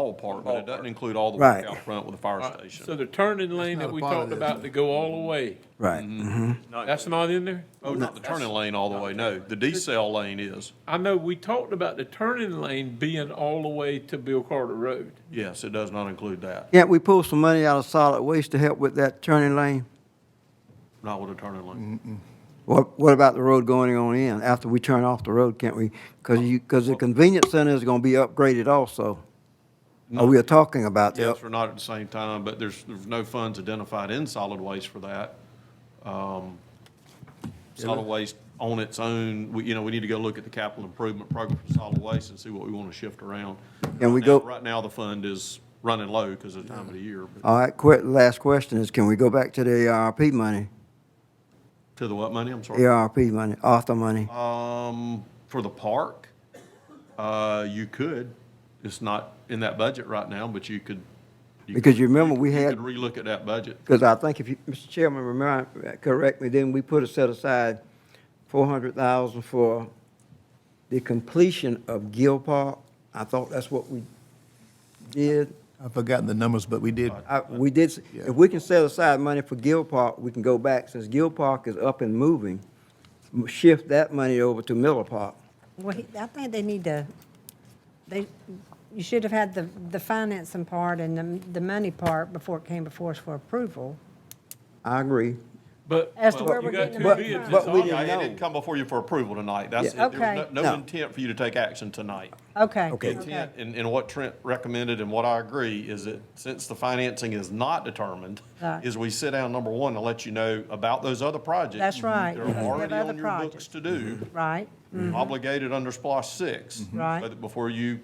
ballpark, but it doesn't include all the way Right. out front with the fire All right, So station. the turning lane that not a we part of talked this. about to go all the way, Right. Mm-hmm. that's not in there? Oh, not the turning lane all the way, no. The decel lane is. I know we talked about the turning lane being all the way to Bill Carter Road. Yes, it does not include that, Can't we pull some money out of solid waste to help with that turning lane? not with a turning lane. Mm, What, what about the road going on in, after we turn off the road, can't we? Because you, because the convenience center is gonna be upgraded also. Oh, we are talking about that. Mm-hmm. Yes, or not at the same time, but there's, there's no funds identified in solid waste for that. Um, Solid waste on its own, we, you know, we need to go look at the capital improvement program for solid waste and see what we want to shift around. Can Right we now- go- Right now, the fund is running low because of the time of the year, but All right, quick, last question is, can we go back to the ARP money? to the what money, I'm sorry? ARP money, Arthur money? Um, for the park, uh, you could. It's not in that budget right now, but you could. you Because could- you remember we You had, could relook at that budget. because I think if you, Mr. Chairman, remember, correct me, then we put a set aside four hundred thousand for the completion of Gill Park. I thought that's what we did. I've forgotten the numbers, but we did, I, we did, s- Yeah. if we can set aside money for Gill Park, we can go back, since Gill Park is up and moving, m- shift that money over to Miller Park. Well, he- I think they need to, they, you should have had the, the financing part and the, the money part before it came before us for approval. I agree. But As to where well, you we're got getting two the money bids, from. it's But we all- didn't Yeah, It know. didn't come before you for approval tonight. That's, it. Yeah. there was Okay. no- no No. intent for you to take action tonight. Okay. Okay. The Intent, and, and what Trent recommended and what I agree is that since the financing is not determined, Right. is we sit down, number one, to let you know about those other projects. That's right, They're because we have already other on your books projects. to do. Right? Mm-hmm. obligated under SPOS six. Right. so that Before you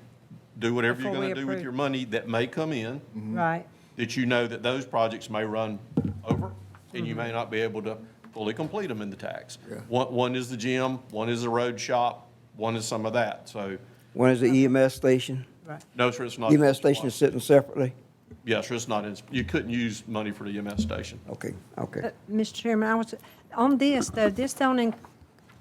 do whatever you're Before we gonna do with approve. your money that may come in, Mm-hmm. Mm-hmm. Right. that you know that those projects may run over, and Mm-hmm. you may not be able to fully complete them in the tax. One, one is the gym, one is the road shop, one is some of that, so, One is the EMS station. Right. no, sir, it's not. in EMS E station is SPOS. sitting separately? Yes, sir, it's not, in you couldn't use money for the EMS station. Okay, okay. Mr. Uh, Chairman, I was, on this, though, this don't, in-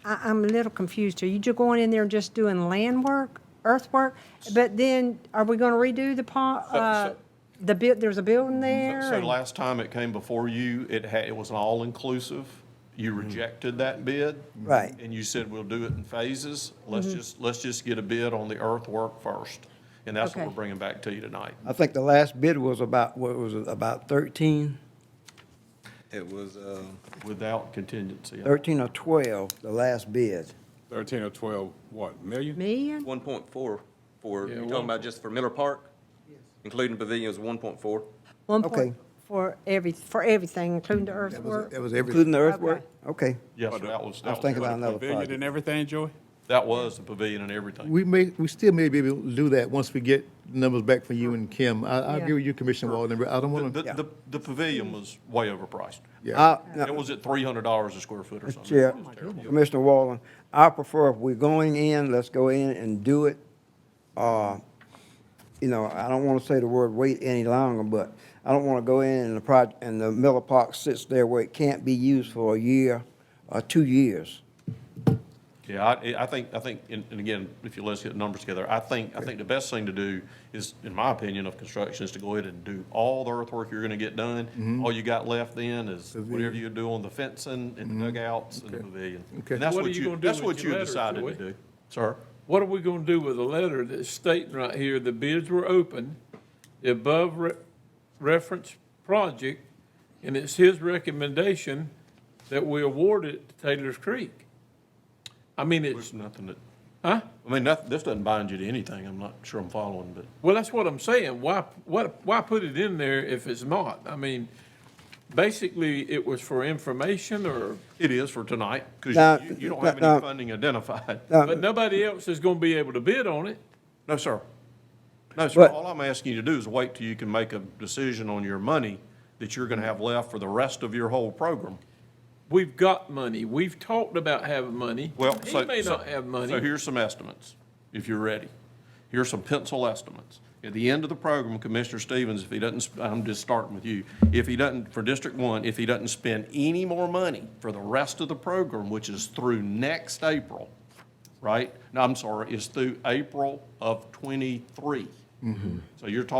I, I'm a little confused. Are you just going in there and just doing land work, earthwork? But then, are we gonna redo the pond, so- Mm-hmm. uh, the bit, there's a building there? So and- last time it came before you, it had, it was an all-inclusive. You rejected that bid. Right. And you said, we'll do it in phases. Let's just, let's just get a bid on the earthwork first. And that's what we're Okay. bringing back to you tonight. I think the last bid was about, what was it, about 13, It was, uh, Without contingency. 13 or 12, the last bid. 13 or 12, what, million? Million? one point four for, Yeah, you're one- talking about just for Miller Park? Including pavilions, one point four? One Okay. point, for every, for everything, including the that was, earthwork? that was everything. Including the earthwork? Okay, Yes, sir, that was, I was that thinking about was, another Pavilion project. and everything, Joey? that was the pavilion and everything. We may, we still may be able to do that once we get numbers back from you and Kim. I, I Yeah. agree with you, Commissioner Walden, but I don't The, want the, to, the- the pavilion was way overpriced. I- It was at three hundred dollars a square foot or something. Chair, It was terrible. Commissioner Wallen, I prefer if we're going in, let's go in and do it. Uh, You know, I don't want to say the word wait any longer, but I don't want to go in and the project, and the Miller Park sits there where it can't be used for a year or two years. Yeah, I, I think, I think, and and again, if you let's get the numbers together, I think, I think the best thing to do is, in my opinion, of construction, is to go ahead and do all the earthwork you're gonna get Mm-hmm. done. All you got left then is whatever you do on the fencing Mm-hmm. and the dugouts and the pavilion. And that's What are what you you, gonna do that's with what your you letter, decided to Joey? do, sir. What are we gonna do with a letter that's stating right here, the bids were open, the above re- referenced project, and it's his recommendation that we award it to Taylor's Creek? I mean, it's, There's nothing that, huh? I mean, nothing, this doesn't bind you to anything, I'm not sure I'm following, but. Well, that's what I'm saying. Why, what, why put it in there if it's not? I mean, basically, it was for information or, It is for tonight, Now- because you, you don't have now- any funding identified. but nobody else is gonna be able to bid on it. No, sir. No, sir. But- All I'm asking you to do is wait till you can make a decision on your money that you're going to have left for the rest of your whole program. We've got money. We've talked about having money. Well, so. He may so- not have So money. here's some estimates, if you're ready. Here's some pencil estimates. At the end of the program, Commissioner Stevens, if he doesn't, sp- I'm just starting with you, if he doesn't, for District One, if he doesn't spend any more money for the rest of the program, which is through next April, right? No, I'm sorry, is through April of twenty-three. So you're talking